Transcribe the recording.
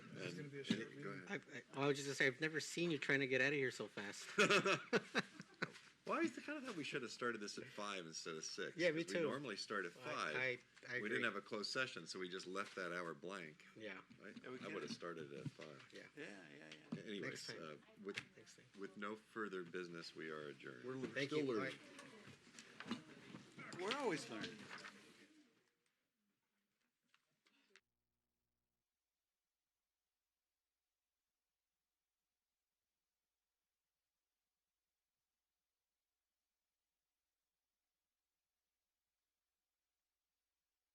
Commissioner. Go ahead. I, I, I was just gonna say, I've never seen you trying to get out of here so fast. Well, I kind of thought we should have started this at five instead of six. Yeah, me 'cause too. We normally start at five. I, I We agree. didn't have a closed session, so we just left that hour blank. Yeah, I- Yeah, I we could. would have started at five. Yeah, yeah, yeah. Anyways, time. uh, with, thanks, Dave. with no further business, we are adjourned. We're Thank you. still All learning. right. We're always learning.